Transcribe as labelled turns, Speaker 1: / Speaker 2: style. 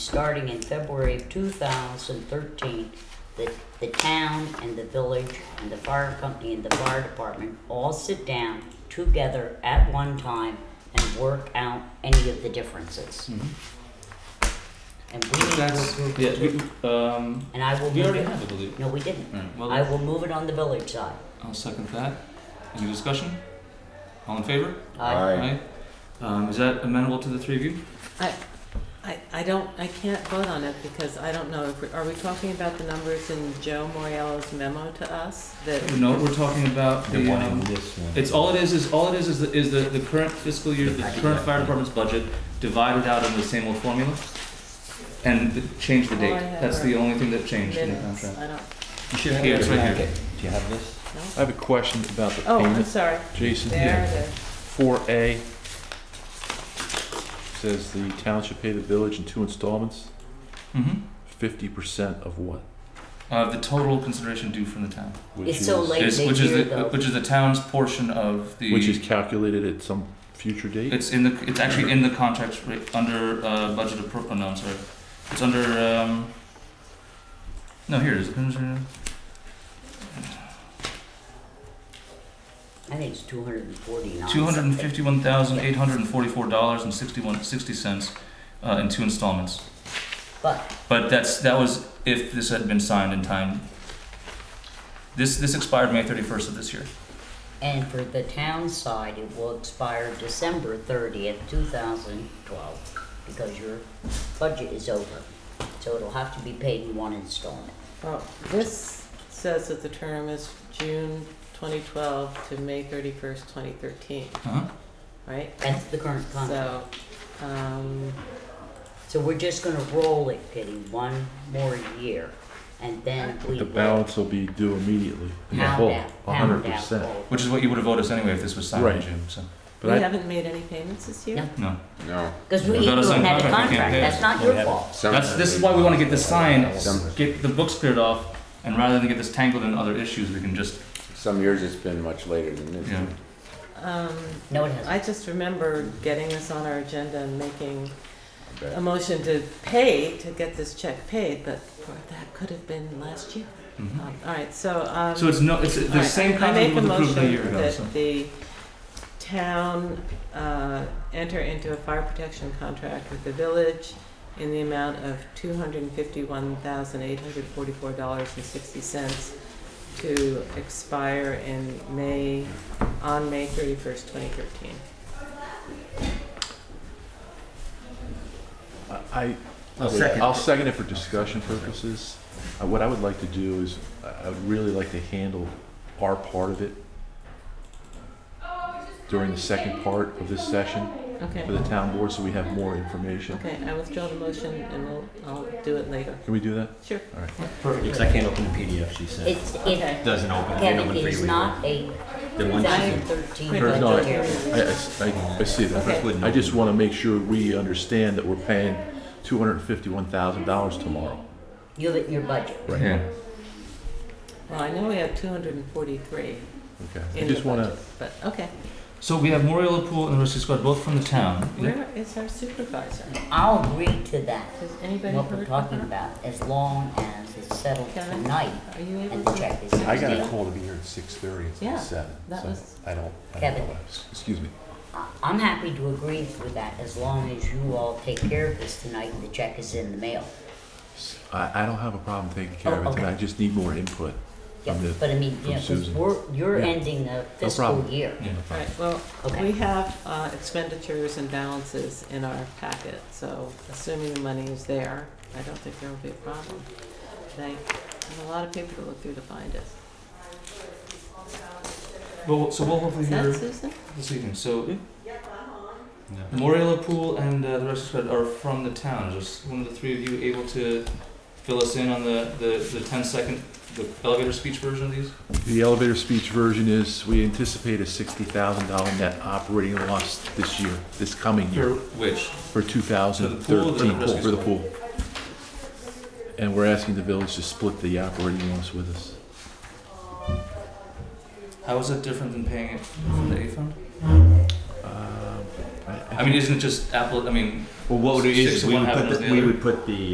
Speaker 1: starting in February of two thousand thirteen, the, the town and the village and the fire company and the fire department all sit down together at one time and work out any of the differences. And we need to
Speaker 2: That's,
Speaker 1: approve
Speaker 2: yeah,
Speaker 1: it too.
Speaker 2: we, um,
Speaker 1: And I will
Speaker 2: we
Speaker 1: move
Speaker 2: already
Speaker 1: it,
Speaker 2: have, I believe.
Speaker 1: no, we didn't.
Speaker 2: Alright,
Speaker 1: I
Speaker 2: well,
Speaker 1: will move it on the village side.
Speaker 2: I'll second that. Any discussion? All in favor?
Speaker 1: I-
Speaker 2: Aye. Um, is that amenable to the three of you?
Speaker 3: I, I, I don't, I can't vote on it because I don't know, if we- are we talking about the numbers in Joe Moriello's memo to us? That,
Speaker 2: No, we're talking about
Speaker 4: The
Speaker 2: the,
Speaker 4: one in
Speaker 2: um,
Speaker 4: this one.
Speaker 2: it's all it is, is all it is, is the, is the, the current fiscal year, the current fire department's budget divided out into the same old formula and the- change the
Speaker 3: All
Speaker 2: date.
Speaker 3: I have
Speaker 2: That's
Speaker 3: are
Speaker 2: the only thing that changed in the
Speaker 3: minutes,
Speaker 2: contract.
Speaker 3: I don't,
Speaker 4: You should have
Speaker 2: Here,
Speaker 4: it
Speaker 2: it's
Speaker 4: in your
Speaker 2: right here.
Speaker 4: packet. Do you have this?
Speaker 3: no?
Speaker 5: I have a question about the
Speaker 3: Oh, I'm
Speaker 5: payment.
Speaker 3: sorry, there
Speaker 5: Jason,
Speaker 3: it is.
Speaker 5: four A says the town should pay the village in two installments,
Speaker 2: Mm-hmm.
Speaker 5: fifty percent of what?
Speaker 2: Uh, the total consideration due from the town,
Speaker 5: Which
Speaker 1: It's so
Speaker 5: is-
Speaker 1: late.
Speaker 2: is,
Speaker 1: they
Speaker 2: which is
Speaker 1: hear
Speaker 2: the,
Speaker 1: though.
Speaker 2: which is the town's portion of the.
Speaker 5: Which is calculated at some future date?
Speaker 2: It's in the, it's actually in the contract ra- under, uh, budget appro, oh, no, I'm sorry. It's under, um, no, here it is.
Speaker 1: I think it's two hundred and forty-nine.
Speaker 2: Two hundred and fifty-one thousand, eight hundred and forty-four dollars and sixty-one, sixty cents, uh, in two installments.
Speaker 1: But,
Speaker 2: But that's, that was if this had been signed in time. This, this expired May thirty-first of this year.
Speaker 1: and for the town side, it will expire December thirtieth, two thousand twelve, because your budget is over. So it'll have to be paid in one installment.
Speaker 3: Well, this says that the term is June twenty twelve to May thirty first, twenty thirteen,
Speaker 2: Uh-huh.
Speaker 3: right?
Speaker 1: That's the current contract.
Speaker 3: So, um,
Speaker 1: So we're just gonna roll it, Kitty, one more year, and then we
Speaker 5: The
Speaker 1: will
Speaker 5: balance will be due immediately, the
Speaker 1: pound
Speaker 5: whole,
Speaker 1: out-
Speaker 5: a
Speaker 1: pound
Speaker 5: hundred
Speaker 1: out
Speaker 5: percent.
Speaker 1: all-
Speaker 2: Which is what you would have voted us anyway if this was signed in
Speaker 5: Right.
Speaker 2: June, so,
Speaker 3: we
Speaker 5: But I,
Speaker 3: haven't made any payments this year?
Speaker 1: No.
Speaker 2: no.
Speaker 6: No.
Speaker 1: Cause we
Speaker 2: Without a
Speaker 1: even
Speaker 2: signed
Speaker 1: had a
Speaker 2: contract, we can't
Speaker 1: contract,
Speaker 2: pay it.
Speaker 1: that's not your fault.
Speaker 2: That's, this is why we wanna get this signed, s-
Speaker 6: Some-
Speaker 2: get the books cleared off, and rather than get this tangled in other issues, we can just
Speaker 6: Some years it's been much later than this.
Speaker 2: Yeah.
Speaker 3: Um,
Speaker 1: No, it hasn't.
Speaker 3: I just remember getting this on our agenda and making
Speaker 6: I bet.
Speaker 3: a motion to pay, to get this check paid, but that could have been last year.
Speaker 2: Mhm.
Speaker 3: Um, All right, so, um.
Speaker 2: So it's no, it's
Speaker 3: all
Speaker 2: the
Speaker 3: right,
Speaker 2: same
Speaker 3: I make
Speaker 2: contract was approved a year
Speaker 3: motion
Speaker 2: ago, so.
Speaker 3: That the town, uh, enter into a fire protection contract with the village in the amount of two hundred and fifty-one thousand, eight hundred forty-four dollars and sixty cents to expire in May, on May thirty-first, twenty thirteen.
Speaker 5: I,
Speaker 4: I'll second.
Speaker 5: I'll second it for discussion purposes. Uh, What I would like to do is, I I would really like to handle our part of it during the second part of this session
Speaker 3: Okay.
Speaker 5: for the town board, so we have more information.
Speaker 3: Okay, I withdraw the motion and we'll, I'll do it later.
Speaker 5: Can we do that?
Speaker 3: Sure.
Speaker 4: Perfect. Because I can't open the PDF she sent.
Speaker 1: It's,
Speaker 3: Okay.
Speaker 1: it,
Speaker 4: Doesn't open. Can't
Speaker 1: Kevin,
Speaker 4: open
Speaker 1: it
Speaker 4: for
Speaker 1: is
Speaker 4: you
Speaker 1: not a
Speaker 4: either. The one she sent.
Speaker 1: 2013
Speaker 3: Or
Speaker 5: no,
Speaker 1: budget year.
Speaker 5: I- I, s- I- I see that.
Speaker 3: Okay.
Speaker 5: I just want to make sure we understand that we're paying two hundred and fifty-one thousand dollars tomorrow.
Speaker 1: You have it in your budget.
Speaker 2: Yeah.
Speaker 3: Well, I know we have two hundred and forty-three
Speaker 5: Okay. I
Speaker 3: in the
Speaker 5: just want
Speaker 3: budget,
Speaker 5: to,
Speaker 3: but, okay.
Speaker 2: So we have Moriel Pool and the Rescue Squad both from the town.
Speaker 3: Where is our supervisor?
Speaker 1: I'll agree to that,
Speaker 3: Has anybody
Speaker 1: what we're
Speaker 3: heard from
Speaker 1: talking
Speaker 3: her?
Speaker 1: about, as long as it's settled
Speaker 3: Can I-
Speaker 1: tonight
Speaker 3: Are you able
Speaker 1: and
Speaker 3: to?
Speaker 1: the check is
Speaker 7: I got a
Speaker 1: deal.
Speaker 7: call to be here at six thirty, it's
Speaker 3: Yeah,
Speaker 7: at seven,
Speaker 3: that
Speaker 7: so
Speaker 3: was-
Speaker 7: I don't, I don't know
Speaker 1: Kevin.
Speaker 7: what I was.
Speaker 5: excuse me,
Speaker 1: I'm happy to agree with that, as long as you all take care of this tonight and the check is in the mail.
Speaker 5: I, I don't have a problem taking care of
Speaker 1: Oh,
Speaker 5: it, tonight.
Speaker 1: okay.
Speaker 5: I just need more input.
Speaker 1: Yeah,
Speaker 5: From the-
Speaker 1: but I mean,
Speaker 5: from
Speaker 1: you know, 'cause
Speaker 5: Susan.
Speaker 1: we're, you're
Speaker 5: Yeah.
Speaker 1: ending the fiscal
Speaker 5: problem.
Speaker 1: year.
Speaker 2: Yeah.
Speaker 3: All right, well,
Speaker 1: Okay.
Speaker 3: we have uh, expenditures and balances in our packet, so assuming the money is there, I don't think there will be a problem. They have a lot of paper to look through to find it.
Speaker 2: Well, so we'll hopefully
Speaker 3: Is that
Speaker 2: hear
Speaker 3: Susan?
Speaker 2: this evening. So Moriel Pool and uh, the Rescue Squad are from the town. Just one of the three of you able to fill us in on the the, the 10 second the elevator speech version of these?
Speaker 5: The elevator speech version is, we anticipate a sixty thousand dollar net operating loss this year, this coming year,
Speaker 2: Or which?
Speaker 5: for two
Speaker 2: For the
Speaker 5: thousand
Speaker 2: pool or the
Speaker 5: thirteen,
Speaker 2: rescue
Speaker 5: for the pool. And we're asking the village to split the operating loss with us.
Speaker 2: How is that different than paying it from the A fund?
Speaker 5: Um, Uh, I- I
Speaker 2: I mean, isn't it just Apple, I mean,
Speaker 4: Well, what would it
Speaker 2: Six
Speaker 4: is,
Speaker 2: of
Speaker 4: we
Speaker 2: one
Speaker 4: would put,
Speaker 2: happened
Speaker 4: the-
Speaker 2: on the
Speaker 4: we
Speaker 2: other.
Speaker 4: would put the,